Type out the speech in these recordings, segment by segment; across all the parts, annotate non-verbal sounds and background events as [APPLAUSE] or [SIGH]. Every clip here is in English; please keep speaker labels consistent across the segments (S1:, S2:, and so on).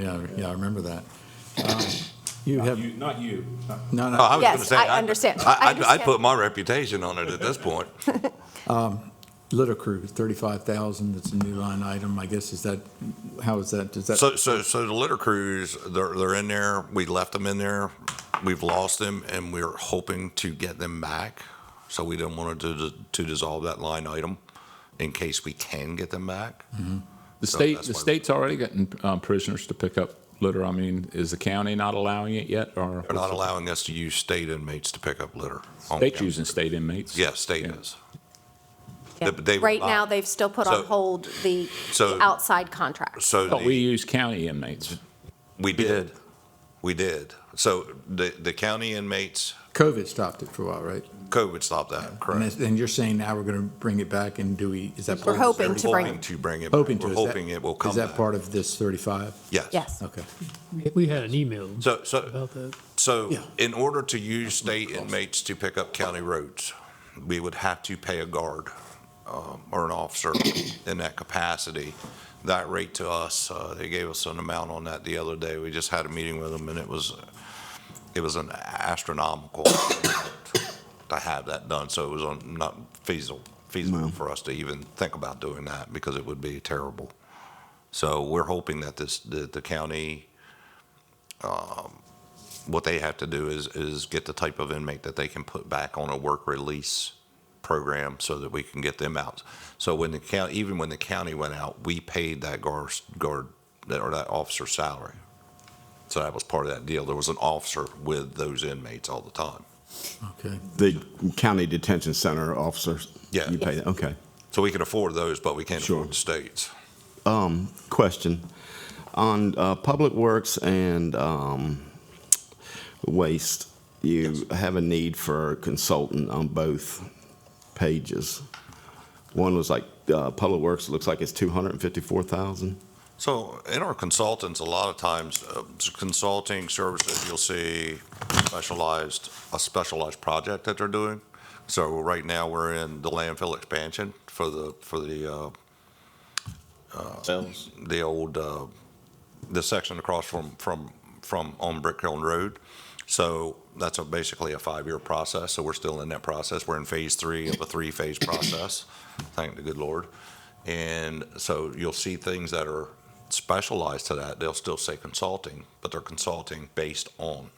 S1: Yeah, I- yeah, I remember that. Um, You have,
S2: You, not you.
S1: no,
S3: Oh,
S1: no,
S3: I was
S4: Yes,
S3: gonna say,
S4: I understand. I
S3: I, I'd- I'd
S4: understand.
S3: put my reputation on it at
S2: [LAUGHS]
S3: this point.
S1: litter crew, thirty-five thousand, that's a new line item, I guess, is that, how is that, does that,
S3: So, so, so the litter crews, they're, they're in there. We left them in there. We've lost them and we're hoping to get them back. So we didn't want to, to dissolve that line item in case we can get them back.
S2: Mm-hmm. The
S3: So
S2: state,
S3: that's
S2: the
S3: why-
S2: state's already gotten um, prisoners to pick up litter. I mean, is the county not allowing it yet, or
S3: They're not allowing us to use state inmates to pick up litter. on
S2: state
S3: campus.
S2: using state inmates?
S3: Yeah, state
S2: Yeah.
S3: is.
S4: Yeah.
S3: They- they-
S4: Right now, they've still put on
S3: So-
S4: hold the
S3: so-
S4: the outside contracts.
S3: So
S2: But
S3: the-
S2: Oh, we use county inmates.
S3: we did. We did. So the, the county inmates,
S1: COVID stopped it for a while, right?
S3: COVID stopped that,
S1: And
S3: correct?
S1: it's- And you're saying now we're gonna bring it back, and do we, is that?
S4: We're
S1: part of-
S4: hoping to bring-
S3: Hoping to bring it. back.
S1: Hoping to.
S3: We're
S1: is that-
S3: hoping it will come
S1: Is that
S3: back.
S1: part of this thirty-five?
S3: Yes.
S4: Yes.
S1: Okay.
S5: We had an email
S3: So, so,
S5: about that.
S3: so
S1: Yeah.
S3: in order to use state inmates to pick up county roads, we would have to pay a guard um, or an officer in that capacity. That rate to us, uh, they gave us an amount on that the other day. We just had a meeting with them and it was, it was an astronomical [COUGHS] to have that done. So it was on- not feasible, feasible for us to even think about doing that because it would be terrible. So we're hoping that this, that the county, what they have to do is, is get the type of inmate that they can put back on a work release program so that we can get them out. So when the county, even when the county went out, we paid that guard, guard, that- or that officer's salary. So that was part of that deal. There was an officer with those inmates all the time.
S1: Okay,
S6: The county detention center officers?
S3: Yeah.
S6: You pay that, okay.
S3: So we can afford those, but we can't
S6: Sure.
S3: afford the states.
S6: Um, question. On, uh, Public Works and, um, Waste, you have a need for a consultant on both pages. One was like, uh, Public Works, looks like it's two hundred and fifty-four thousand.
S3: So in our consultants, a lot of times, uh, consulting services, you'll see specialized, a specialized project that they're doing. So right now, we're in the landfill expansion for the, for the, uh,
S6: Sales.
S3: the old, uh, the section across from, from, from on Brick Hill Road. So that's a, basically a five-year process, so we're still in that process. We're in phase three of a three-phase process, thank the good Lord. And so you'll see things that are specialized to that. They'll still say consulting, but they're consulting based on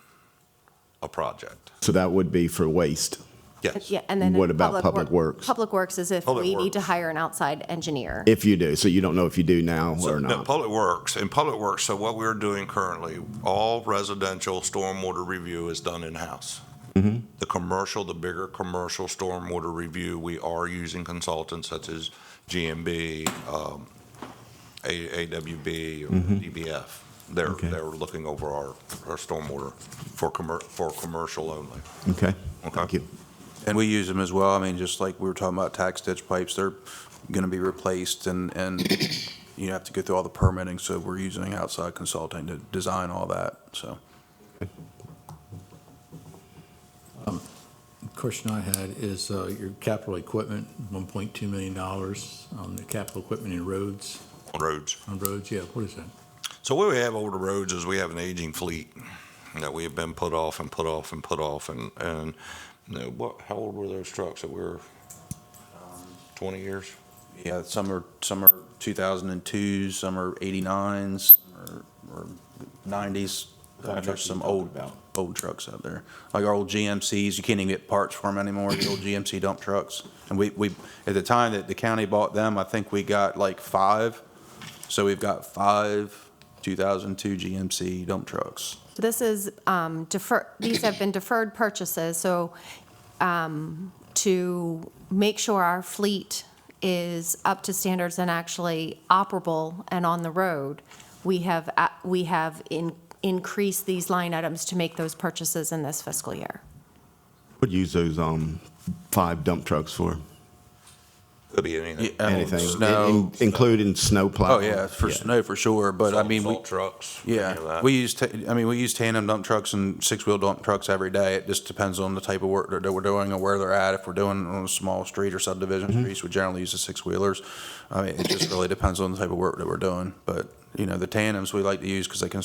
S3: a project.
S6: So that would be for waste.
S3: Yes.
S4: Yeah, and then.
S6: What
S4: in
S6: about Public
S4: Work-
S6: Works?
S4: Public Works is if
S3: Public
S4: we need to
S3: Works.
S4: hire an outside engineer.
S6: If you do, so you don't know if you do now
S3: So,
S6: or
S3: no,
S6: not.
S3: Public Works, in Public Works, so what we're doing currently, all residential stormwater review is done in-house. The commercial, the bigger commercial stormwater review, we are using consultants such as GMB, um, A- AWB, or DBF. They're,
S6: Okay.
S3: they're looking over our, our stormwater for commer, for commercial only.
S6: Okay.
S3: Okay.
S6: Thank you.
S7: And we use them as well. I mean, just like we were talking about tax ditch pipes, they're going to be replaced and, and you have to go through all the permitting. So we're using outside consulting to design all that, so.
S1: question I had is, uh, your capital equipment, one point two million dollars on the capital equipment in roads,
S3: On Roads.
S1: on roads, yeah, what is that?
S3: So what we have over the roads is we have an aging fleet that we have been put off and put off and put off and, and, you know, what, how old were those trucks that were twenty years?
S7: Yeah, some are, some are 2002s, some are 89s, or- or 90s. There's some old, old trucks out there. Like our old GMCs, you can't even get parts for them anymore, the old GMC dump trucks. And we, we, at the time that the county bought them, I think we got like five. So we've got five 2002 GMC dump trucks.
S4: This is um, defer, these have been deferred purchases, so um, to make sure our fleet is up to standards and actually operable and on the road, we have, a- we have in- increased these line items to make those purchases in this fiscal year.
S6: Would use those, um, five dump trucks for?
S3: Could be anything.
S7: Yeah,
S6: Anything,
S7: Snow.
S6: in- in- including snow plow.
S7: Oh, yeah, for snow, for sure, but I
S3: Salt-
S7: mean, we,
S3: Salt trucks. any of
S7: Yeah,
S3: that.
S7: we use, ta- I mean, we use tandem dump trucks and six-wheel dump trucks every day. It just depends on the type of work that that we're doing or where they're at. If we're doing on a small street or
S3: Mm-hmm.
S7: subdivision streets, we generally use the six-wheelers. I mean, it just really depends on the type of work that we're doing, but You know, the tandems we like to use because they can